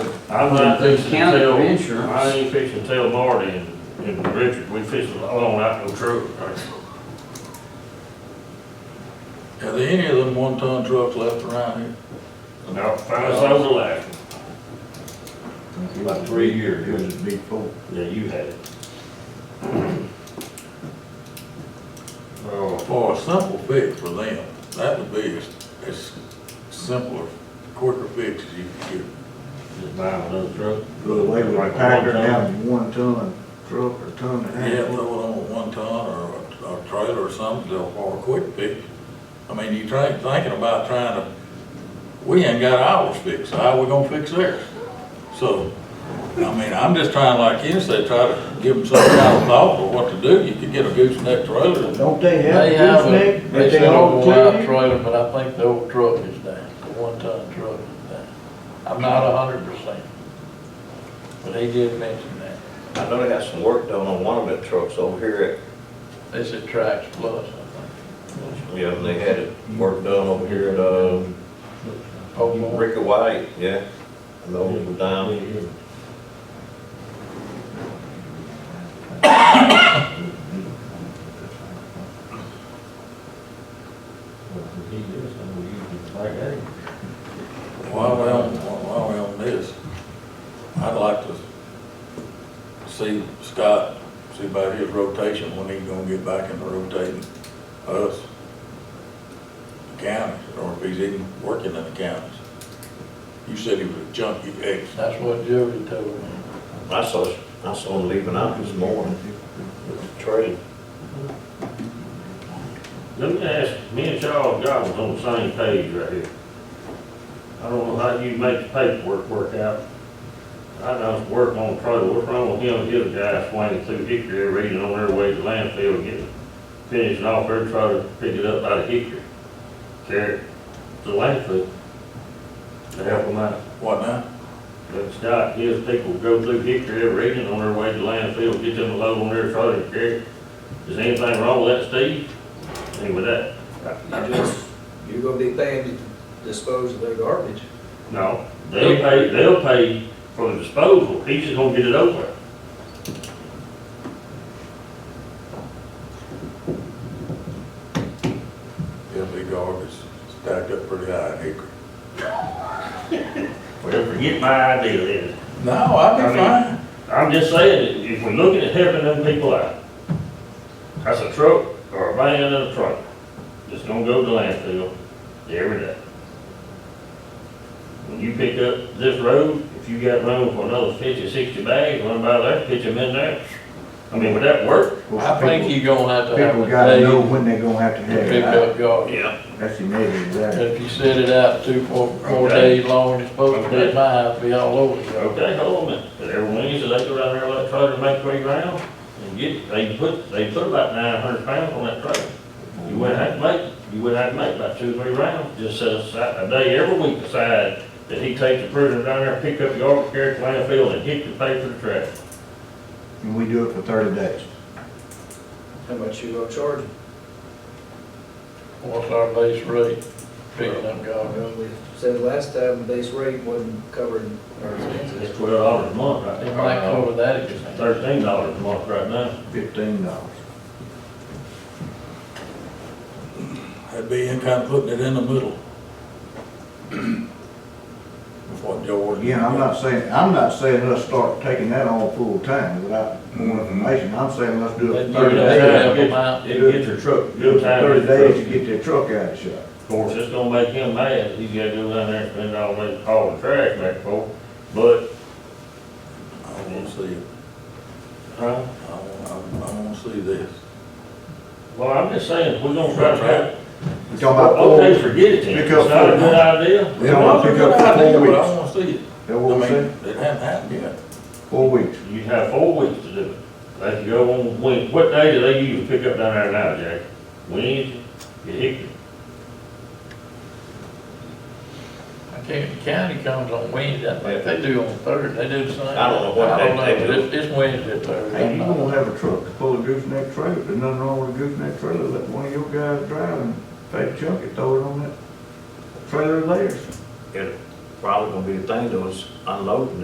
I'm not The fixing to county tell, insurance. I ain't fixing to tell Marty and, and Richard, we fixing to loan out no truck. right? Are there any of them one-ton trucks left around here? Now, find us those last. About three years, it was a big fool. Yeah, you had it. Oh, For a simple fix for them, that would be as, as simpler, quicker fix as you could get. just buy another truck. The way we Like a packed it one-ton. down, to one ton truck or ton and a Yeah, half. throw it on a one-ton or a, a trailer or something, they'll, or a quick fix. I mean, you try, thinking about trying to, we ain't got ours fixed, how we gonna fix theirs? So, I mean, I'm just trying, like you said, try to give them some kind of thought of what to do. You could get a gooseneck trailer and Don't they have They have, a- gooseneck they that said they a all one-ton tell you? trailer, but I think the old truck is down, the one-ton truck is down. I'm not a hundred percent, but they did mention that. I know they got some work done on one of the trucks over here They said Trax Plus, I at, you know, they had it work done over here at, uh, think. Oh, boy. Ricky White, yeah. And those were down. While we're on, while we're on this, I'd like to see Scott, see about his rotation, when he's gonna get back into rotating us, the counties, or if he's even working in the counties. You said he was a junkie ex. That's what Jerry told me. I saw, I saw him leaving out this morning with the trailer. Let me ask, me and Charles Godwin's on the same page right here. I don't know how you make the paperwork work out. I don't work on trailer, what's wrong with him and the other guy swinging through Hickory every evening on their way to landfill, getting, finishing off their trailer, pick it up out of Hickory, carry it to landfill. To help them out. What now? But Scott, his people go through Hickory every evening on their way to landfill, get them a load on their trailer, carry it. Is anything wrong with that, Steve? Anything with that? You just, you're gonna be paying to dispose of their garbage. No, they'll pay, they'll pay for the disposal, he's just gonna get it over. with. He'll be garbage, stacked up pretty high in Hickory. Well, forget my idea then. No, I'd be I fine. I'm just saying, that if we're looking at helping them people out, that's a truck or a van and a truck, It's gonna go to landfill every day. When you pick up this road, if you got room for another fifty, sixty bags, run by there, pitch them in there. I mean, would that work? I think you're gonna have to have People a gotta day know to when they're gonna have to have pick it out. up garbage. Yeah. That's the negative, And that. If you set it out two, four, four Okay. days long, it's supposed to be Okay. at night, it'll be all over the yard. Okay, hold on a minute, 'Cause every Wednesday, they go down there, let trailer make three rounds, and get, they put, they put about nine hundred pounds on that trailer. You wouldn't have to make, you wouldn't have to make about two, three rounds, just set aside, a day every week aside, that he takes the prisoner down there, pick up yard, carry it to landfill, and hit the pay for the trash. And we do it for thirty days. How much you gonna charge them? What's our base rate picking up garbage? Well, we Said last time, the base rate wasn't covering our It's expenses. twelve dollars a month right It there. might cover that It's expense. Thirteen dollars a month right now. fifteen dollars. That'd be him kind of putting it in the middle. With what George. Again, I'm not saying, I'm not saying let's start taking that on full time without Mm-hmm. more information, I'm saying let's do it Let's for do it thirty They days. have them out. It'll get your truck, Do it good for time. Thirty days to get their truck out of the shop. Of course, it's gonna make him mad, he's gotta go down there and spend all that, all the trash back for, but, I wanna see it. huh? I wanna, I wanna see this. Well, I'm just saying, we're gonna try to have, We're talking about okay, four, forget it then, Pick it's up not a four. good idea. we're talking about pick up for I do, but four I wanna weeks, see it. that I what mean, we're saying, it hasn't happened yet. four weeks. You have four weeks to do it, they can go on, when, what day do they usually pick up down there now, Jack? Wednesday, you hit, I can't, the county comes on Wednesday, I think they do on Thursday, they do Sunday. I don't know what I don't they- they know, do. It's, it's Wednesday, Thursday. Hey, you gonna have a truck to pull a gooseneck trailer, there's nothing wrong with a gooseneck trailer, let one of your guys drive and take a chunk and throw it on that trailer later. It probably gonna be the thing that was unloading it.